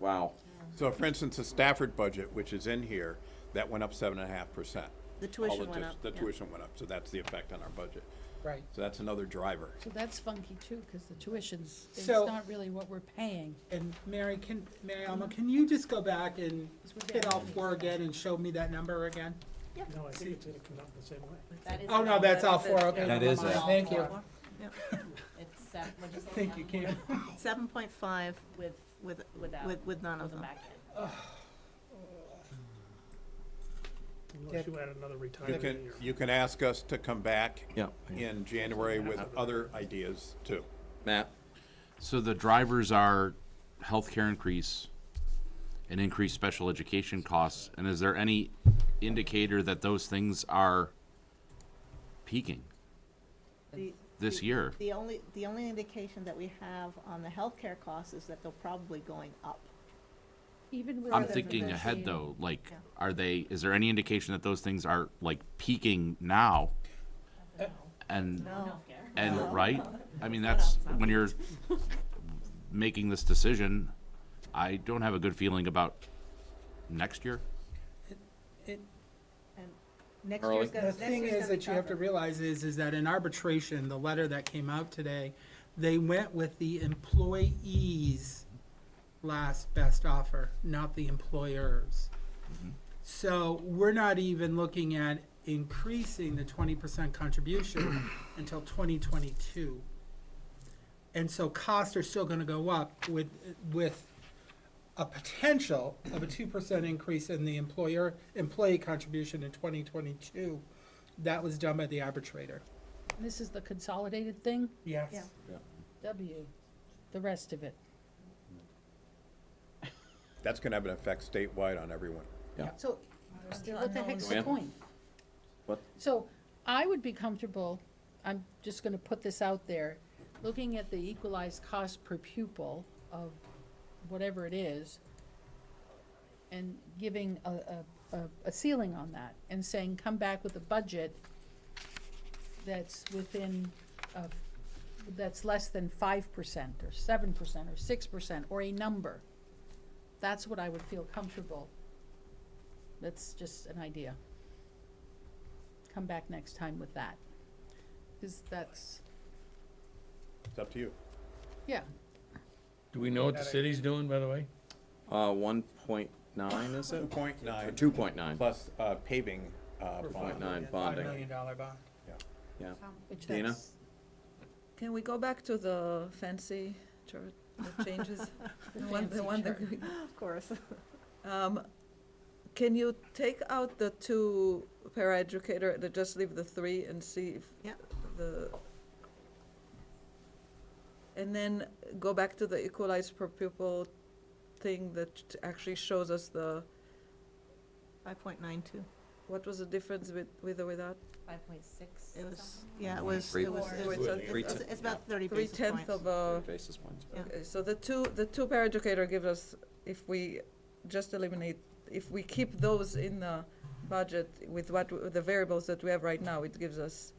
Wow. So for instance, the Stafford budget, which is in here, that went up seven and a half percent. The tuition went up, The yeah. tuition went up, so that's the effect on our budget. Right. So that's another driver. So that's funky too, because the tuition's, it's So- not really what we're paying. And Mary, can, Mary Alma, can you just go back and hit all four again and show me that number again? No, I think it's gonna come out the same way. That is Oh, it. no, that's all four, it. okay. That never is mind. it. Thank you. All It's seven, what'd you say? Thank you, Kim. Cam. Seven point five With, with, without. with, with none of with a them. back end. That- Unless you add another You retirement can, in your. you can ask us to come back Yeah. in January with other ideas too. Matt? So the drivers are healthcare increase and increased special education costs, and is there any indicator that those things are peaking The- this the- year? The only, the only indication that we have on the healthcare costs is that they're probably going up. Even with. I'm the thinking ahead vaccine, though, like, Yeah. are they, is there any indication that those things are like peaking now? And, No. Healthcare. and, right? I mean, that's, when you're making this decision, I don't have a good feeling about next year. And next Early. year's gonna, next The thing year's is gonna be that you have to tougher. realize is, is that in arbitration, the letter that came out today, they went with the employee's last best offer, not the employer's. So we're not even looking at increasing the twenty percent contribution until twenty twenty-two. And so costs are still gonna go up with, with a potential of a two percent increase in the employer, employee contribution in twenty twenty-two. That was done by the arbitrator. This is the consolidated thing, Yes. Yeah. W, the rest of it. That's gonna have an effect statewide on everyone. So, what the heck's the unknowns. point? What? So, I would be comfortable, I'm just gonna put this out there, looking at the equalized cost per pupil of whatever it is, and giving a, a, a- a ceiling on that, and saying, come back with a budget that's within, of, that's less than five percent, or seven percent, or six percent, or a number. That's what I would feel comfortable that's just an idea. Come back next time with that. Cause that's, It's up to you. yeah, Do we know what the city's doing, by the way? Uh, one point nine, is Two it? point nine Two point nine, plus, uh, paving, uh, point bond. nine Five bonding, million dollar bond. yeah. which Dana? that's, Can we go back to the fancy chart that changes? the The one- the fancy one that chart. we- Of course. um, Can you take out the two paraeducator, the- just leave the three and see if Yeah. the, and then go back to the equalized per pupil thing that actually shows us the, Five point nine two. what was the difference with, with or without? Five point six. It was, yeah, it was, it was, it Three- was- Three it's, it's about thirty Three basis tenths points. of a Basis points. Yeah. Okay, So the two, the two paraeducator give us, if we just eliminate, if we keep those in the budget with what, w- the variables that we have right now, it gives us,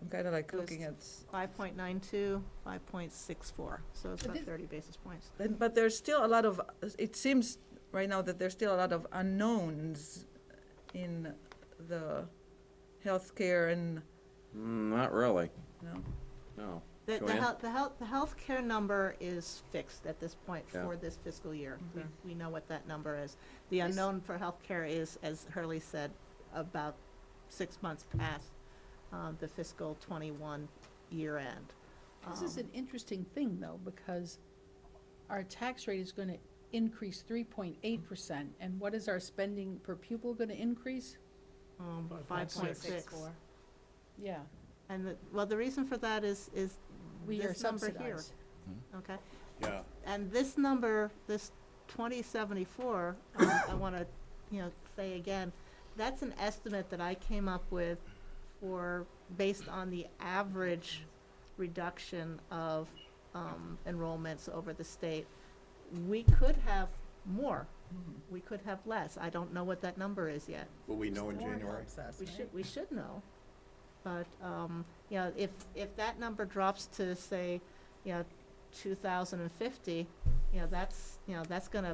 I'm kind of like Those- looking at, Five point nine two, five point six four, so it's But about this- thirty basis points. and- but there's still a lot of, it seems right now that there's still a lot of unknowns in the healthcare and, Mm, not really, no. no. The, the Joanne? health, the health, the healthcare number is fixed at this point Yeah. for this fiscal year. We- Mm-hmm. Okay. We know what that number is. The Is- unknown for healthcare is, as Hurley said, about six months past, um, the fiscal twenty-one year end. This is Um, an interesting thing though, because our tax rate is gonna increase three point eight percent, and what is our spending per pupil gonna increase? Um, five 5.6. point six. Yeah, And the, well, the reason for that is, is we are this number here, subsidized. okay? Yeah. And this number, this twenty seventy-four, um, I wanna, you know, say again, that's an estimate that I came up with for, based on the average reduction of, um, enrollments over the state. We could have more, we could have less, I don't know what that number is yet. Will we know in January? We should, we should know. But, um, you know, if, if that number drops to, say, you know, two thousand and fifty, you know, that's, you know, that's gonna